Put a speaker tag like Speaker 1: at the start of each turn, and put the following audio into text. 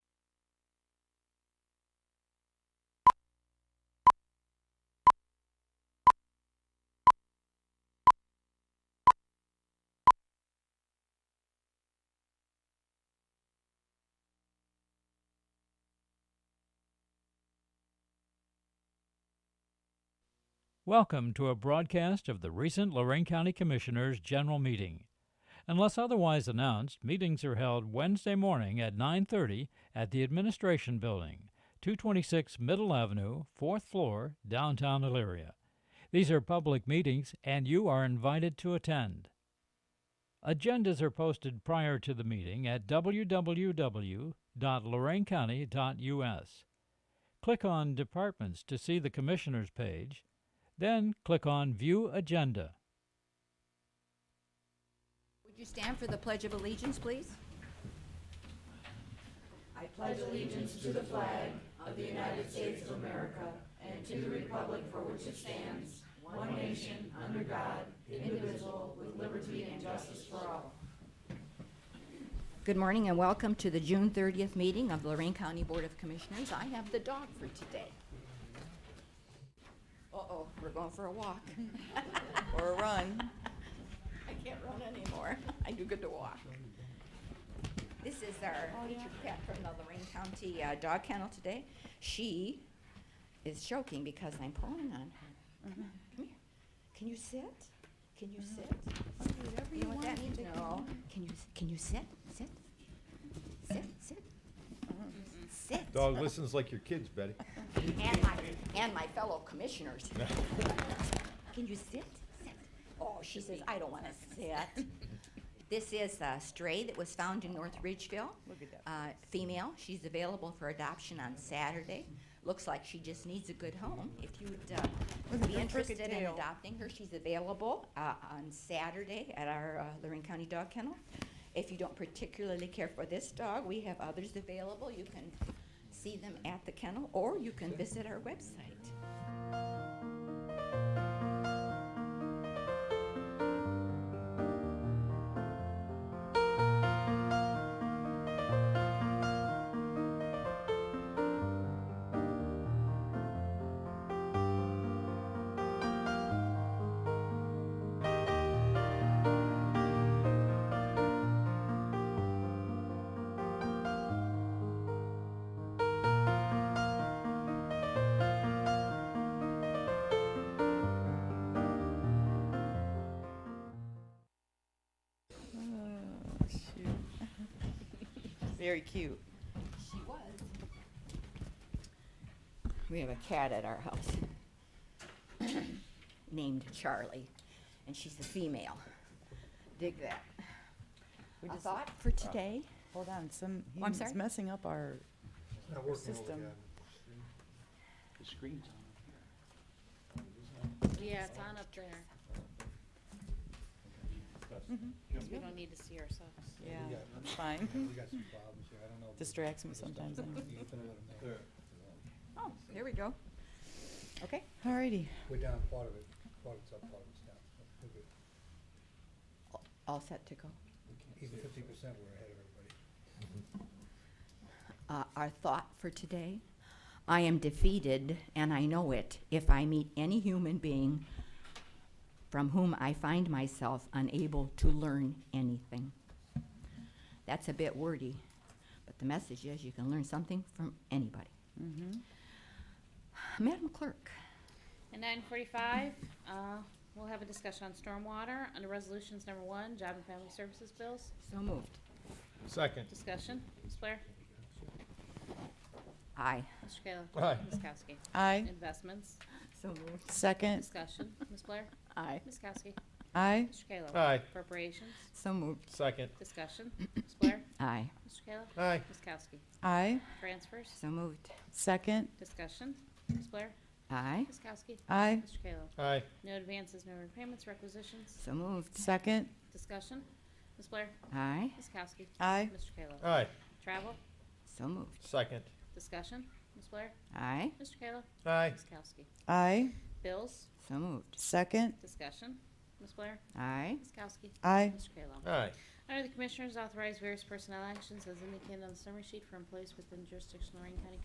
Speaker 1: Welcome to a broadcast of the recent Lorraine County Commissioners' General Meeting. Unless otherwise announced, meetings are held Wednesday morning at 9:30 at the Administration Building, 226 Middle Avenue, 4th floor, downtown Elyria. These are public meetings and you are invited to attend. Agendas are posted prior to the meeting at www.loraincounty.us. Click on Departments to see the Commissioners page, then click on View Agenda.
Speaker 2: Would you stand for the Pledge of Allegiance, please? Good morning and welcome to the June 30th meeting of the Lorraine County Board of Commissioners. I have the dog for today. Uh-oh, we're going for a walk.
Speaker 3: or a run.
Speaker 2: I can't run anymore. I do good to walk. This is our featured pet from the Lorraine County uh, Dog Kennel today. She is choking because I'm pulling on her. Come here. Can you sit? Can you sit? Mm-hmm. Whatever you know what that means? No. Can you, can you sit? Sit? Sit, sit? Mm-hmm. Sit.
Speaker 4: Dog listens like your kids, Betty.
Speaker 2: And my, and my fellow commissioners. Can you sit? Sit. Oh, she says, I don't want to sit. This is a stray that was found in North Ridgeville. Look at that. Uh, female. She's available for adoption on Saturday. Looks like she just needs a good home. If you'd uh, be
Speaker 3: her crooked
Speaker 2: interested in
Speaker 3: tail.
Speaker 2: adopting her, she's available uh, on Saturday at our uh, Lorraine County Dog Kennel. If you don't particularly care for this dog, we have others available. You can see them at the kennel, or you can visit our website.
Speaker 3: Very cute.
Speaker 2: She was. We have a cat at our house named Charlie, and she's a female. Dig that.
Speaker 3: We
Speaker 2: A
Speaker 3: just-
Speaker 2: thought for today?
Speaker 3: Hold on, some,
Speaker 2: Oh, I'm
Speaker 3: he's
Speaker 2: sorry?
Speaker 3: messing up our,
Speaker 4: Not working
Speaker 3: System.
Speaker 5: The screen's on.
Speaker 6: Yeah, it's on up there, because we don't need to see ourselves.
Speaker 3: yeah,
Speaker 7: we got-
Speaker 3: it's fine.
Speaker 7: We got some problems here, I don't know.
Speaker 3: Distracts me sometimes. anyway.
Speaker 2: Oh, there we go. Okay.
Speaker 3: Alrighty,
Speaker 7: We're down part of it, part of it's up, part of it's down. We're good.
Speaker 2: All set to go.
Speaker 7: Even fifty percent, we're ahead of everybody.
Speaker 2: Uh, our thought for today I am defeated, and I know it, if I meet any human being from whom I find myself unable to learn anything. That's a bit wordy, but the message is you can learn something from anybody. Madam Clerk,
Speaker 6: At nine forty-five, uh, we'll have a discussion on stormwater under resolutions number one, job and family services bills.
Speaker 2: so moved.
Speaker 4: Second.
Speaker 6: Discussion, Ms. Blair?
Speaker 2: Aye,
Speaker 6: Mr. Kayla?
Speaker 4: Aye.
Speaker 6: Ms. Kowski?
Speaker 3: aye,
Speaker 6: Investments,
Speaker 2: so moved.
Speaker 3: second,
Speaker 6: discussion, Ms. Blair?
Speaker 2: Aye,
Speaker 6: Ms. Kowski?
Speaker 3: aye,
Speaker 6: Mr. Kayla?
Speaker 4: Aye.
Speaker 6: Appropriations,
Speaker 2: so moved.
Speaker 4: Second.
Speaker 6: discussion, Ms. Blair?
Speaker 2: Aye,
Speaker 6: Mr. Kayla?
Speaker 4: Aye.
Speaker 6: Ms. Kowski?
Speaker 3: aye,
Speaker 6: Transfers,
Speaker 2: so moved.
Speaker 3: second,
Speaker 6: discussion, Ms. Blair?
Speaker 2: Aye,
Speaker 6: Ms. Kowski?
Speaker 3: aye,
Speaker 6: Mr. Kayla?
Speaker 4: Aye.
Speaker 6: No advances, no repayments, requisitions,
Speaker 2: so moved.
Speaker 3: second,
Speaker 6: discussion, Ms. Blair?
Speaker 2: Aye,
Speaker 6: Ms. Kowski?
Speaker 3: aye,
Speaker 6: Mr. Kayla?
Speaker 4: Aye.
Speaker 6: Travel,
Speaker 2: so moved.
Speaker 4: Second.
Speaker 6: discussion, Ms. Blair?
Speaker 2: Aye,
Speaker 6: Mr. Kayla?
Speaker 4: Aye.
Speaker 6: Ms. Kowski?
Speaker 3: aye,
Speaker 6: Bills,
Speaker 2: so moved.
Speaker 3: second,
Speaker 6: discussion, Ms. Blair?
Speaker 2: Aye,
Speaker 6: Ms. Kowski?
Speaker 3: aye,
Speaker 6: Mr. Kayla?
Speaker 4: Aye.
Speaker 6: Under the Commissioners, authorize various personnel actions as indicated on the summary sheet for employees within jurisdiction of Lorraine County